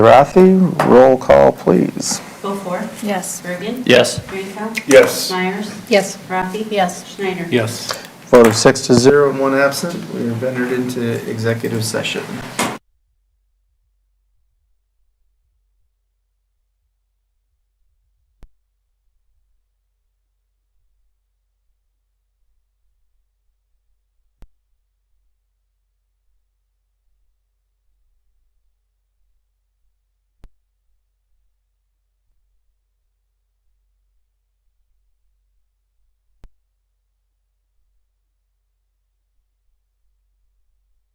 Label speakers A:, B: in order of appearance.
A: Rathi, roll call, please.
B: Beaufour.
C: Yes.
B: Bergen.
D: Yes.
B: Drinkow.
E: Yes.
B: Myers.
C: Yes.
B: Rafi.
C: Yes.
B: Schneider.
D: Yes.
A: Vote of six to zero and one absent, we have entered into executive session.